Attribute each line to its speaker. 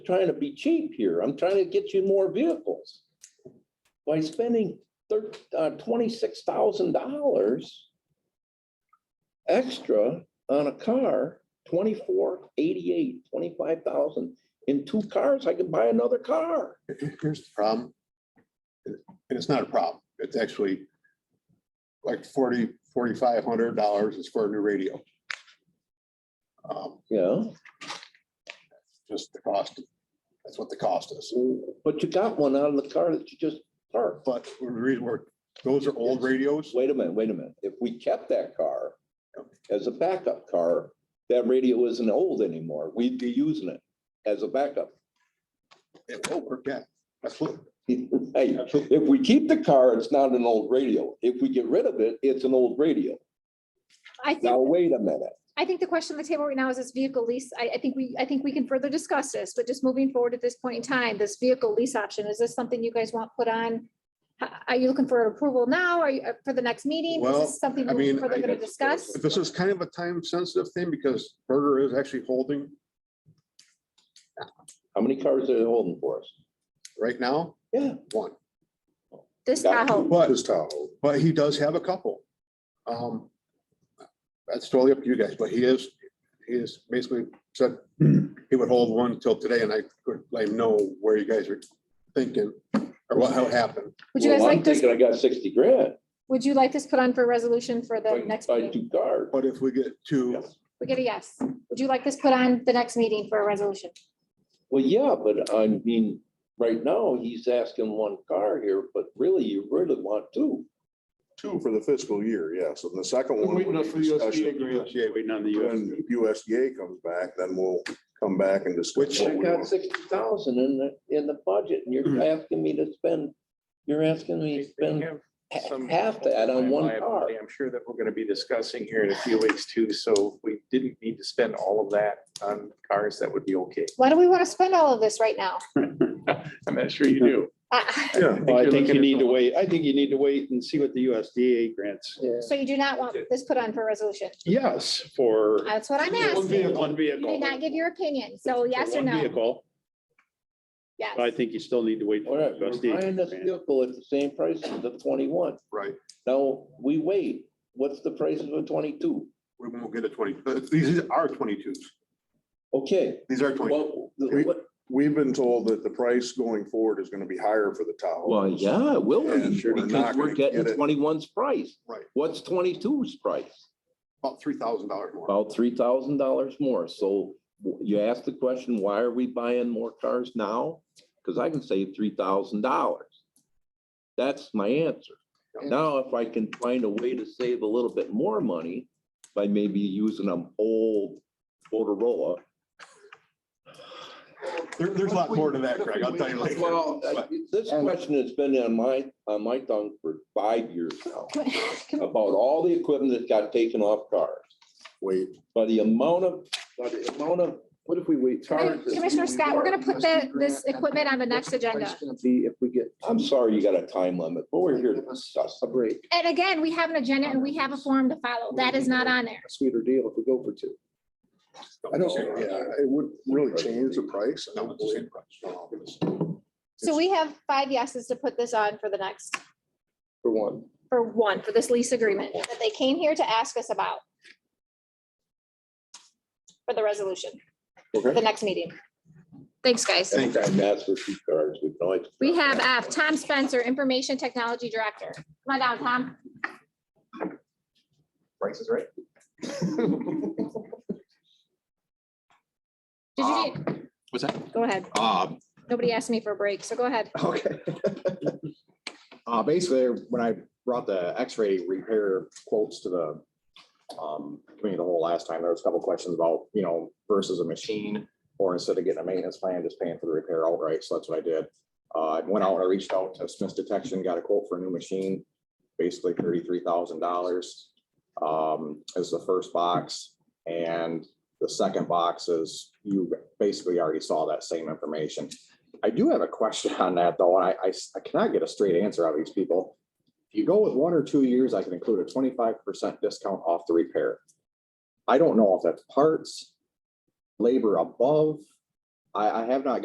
Speaker 1: trying to be cheap here. I'm trying to get you more vehicles. By spending thir- uh, twenty-six thousand dollars extra on a car, twenty-four, eighty-eight, twenty-five thousand, in two cars, I can buy another car.
Speaker 2: Here's the problem. And it's not a problem. It's actually like forty, forty-five hundred dollars is for a new radio. Um,
Speaker 1: Yeah,
Speaker 2: Just the cost. That's what the cost is.
Speaker 1: but you got one out of the car that you just parked.
Speaker 2: But the reason we're, those are old radios.
Speaker 1: Wait a minute, wait a minute. If we kept that car as a backup car, that radio isn't old anymore. We'd be using it as a backup.
Speaker 2: It will work out. Absolutely.
Speaker 1: Hey, if we keep the car, it's not an old radio. If we get rid of it, it's an old radio.
Speaker 3: I
Speaker 1: Now,
Speaker 3: think,
Speaker 1: wait a minute.
Speaker 3: I think the question on the table right now is this vehicle lease. I, I think we, I think we can further discuss this, but just moving forward at this point in time, this vehicle lease option, is this something you guys want put on? H- Are you looking for approval now? Are you, uh, for the next meeting? Is
Speaker 2: Well,
Speaker 3: this something
Speaker 2: I
Speaker 3: we're
Speaker 2: mean,
Speaker 3: further
Speaker 2: I-
Speaker 3: gonna discuss?
Speaker 2: This is kind of a time sensitive thing because Berger is actually holding
Speaker 1: How many cars are they holding for us?
Speaker 2: right now
Speaker 1: Yeah.
Speaker 2: one.
Speaker 3: This uh,
Speaker 1: got
Speaker 3: Tahoe,
Speaker 2: But But he does have a couple. Um, that's totally up to you guys, but he is, he is basically said he would hold one till today and I could blame no where you guys are thinking or what, how it happened.
Speaker 3: would you guys
Speaker 1: Well, I'm
Speaker 3: like this,
Speaker 1: Thinking I got sixty grand.
Speaker 3: would you like this put on for resolution for
Speaker 1: if I
Speaker 3: the
Speaker 1: can
Speaker 3: next
Speaker 1: Buy
Speaker 3: meeting?
Speaker 1: two cars.
Speaker 2: But if we get to,
Speaker 3: We get a yes. Would you like this put on the next meeting for a resolution?
Speaker 1: Well, yeah, but I mean, right now, he's asking one car here, but really, you really want two.
Speaker 4: Two for the fiscal year, yeah. So the second
Speaker 5: We're
Speaker 4: one.
Speaker 5: waiting
Speaker 4: would
Speaker 5: on
Speaker 4: be
Speaker 5: for the USDA
Speaker 4: discussion.
Speaker 5: grant. Waiting on the
Speaker 4: When USDA comes back, then we'll come back and discuss.
Speaker 2: Which-
Speaker 4: what
Speaker 1: I
Speaker 4: we
Speaker 1: got
Speaker 4: want.
Speaker 1: sixty thousand in the, in the budget, and you're asking me to spend, you're asking me to spend ha-
Speaker 5: some
Speaker 1: half that on one car.
Speaker 5: liability, I'm sure that we're gonna be discussing here in a few weeks too, so if we didn't need to spend all of that on cars, that would be okay.
Speaker 3: Why do we want to spend all of this right now?
Speaker 5: I'm not sure you do.
Speaker 3: Uh,
Speaker 4: Yeah,
Speaker 6: Well, I
Speaker 5: you're
Speaker 6: think you
Speaker 5: looking at
Speaker 6: need to
Speaker 5: the-
Speaker 6: wait, I think you need to wait and see what the USDA grants.
Speaker 3: So you do not want this put on for resolution?
Speaker 6: Yes, for.
Speaker 3: That's what I'm
Speaker 6: One
Speaker 3: asking.
Speaker 6: vehicle. One
Speaker 3: You did not
Speaker 6: vehicle.
Speaker 3: give your opinion, so yes or
Speaker 6: One
Speaker 3: no?
Speaker 6: Vehicle,
Speaker 3: Yes.
Speaker 6: but I think you still need to wait.
Speaker 1: All
Speaker 6: for
Speaker 1: right,
Speaker 6: the
Speaker 1: we're buying
Speaker 6: USDA
Speaker 1: this
Speaker 6: grant.
Speaker 1: vehicle at the same price as the twenty-one.
Speaker 2: right,
Speaker 1: Now, we wait, what's the price of a twenty-two?
Speaker 2: we won't get a twenty, but these are twenty-twos.
Speaker 1: Okay,
Speaker 2: These are twenty.
Speaker 1: well, the- what?
Speaker 4: we've been told that the price going forward is gonna be higher for the Tahoe.
Speaker 1: Well, yeah, it will
Speaker 4: And
Speaker 1: be,
Speaker 4: we're
Speaker 1: because
Speaker 4: not
Speaker 1: we're
Speaker 4: gonna
Speaker 1: getting
Speaker 4: get it.
Speaker 1: 21's price.
Speaker 2: Right.
Speaker 1: What's 22's price?
Speaker 2: About three thousand dollars more.
Speaker 1: About three thousand dollars more, so w- you ask the question, why are we buying more cars now? Because I can save three thousand dollars. That's my answer. Now, if I can find a way to save a little bit more money by maybe using an old Motorola.
Speaker 2: There, there's a lot more to that, Craig. I'll tell you later.
Speaker 1: Well, uh, this question has been on my, on my tongue for five years now,
Speaker 3: Can-
Speaker 1: about all the equipment that got taken off cars.
Speaker 4: Wait,
Speaker 1: By the amount of, by the amount of, what if we wait?
Speaker 3: Commissioner Scott, we're gonna put the, this equipment on the next agenda.
Speaker 1: I'm sorry you got a time limit, but we're here to discuss. A break.
Speaker 3: And again, we have an agenda and we have a form to follow. That is not on there.
Speaker 4: I don't, yeah, it would really change the price. I
Speaker 2: No,
Speaker 4: don't
Speaker 2: it's the
Speaker 4: believe.
Speaker 2: same price.
Speaker 4: Um,
Speaker 3: So we have five yeses to put this on for the next,
Speaker 1: For one.
Speaker 3: for one, for this lease agreement that they came here to ask us about. For the resolution, for
Speaker 4: Okay.
Speaker 3: the next meeting. Thanks, guys.
Speaker 1: Anytime that's for two cars, we can always.
Speaker 3: We have F, Tom Spencer, Information Technology Director. Come on down, Tom.
Speaker 5: Price is right.
Speaker 3: Did you,
Speaker 5: Um,
Speaker 3: need-
Speaker 7: What's that?
Speaker 3: go ahead.
Speaker 7: Uh,
Speaker 3: Nobody asked me for a break, so go ahead.
Speaker 7: okay. Uh, basically, when I brought the X-ray repair quotes to the, um, committee of the whole last time, there was a couple questions about, you know, versus a machine. Or instead of getting a maintenance plan, just paying for the repair outright. So that's what I did. Uh, I went out, I reached out to Smith Detection, got a quote for a new machine, basically thirty-three thousand dollars. Um, is the first box and the second box is, you basically already saw that same information. I do have a question on that though. and I, I s- I cannot get a straight answer out of these people. If you go with one or two years, I can include a twenty-five percent discount off the repair. I don't know if that's parts, labor above. I, I have not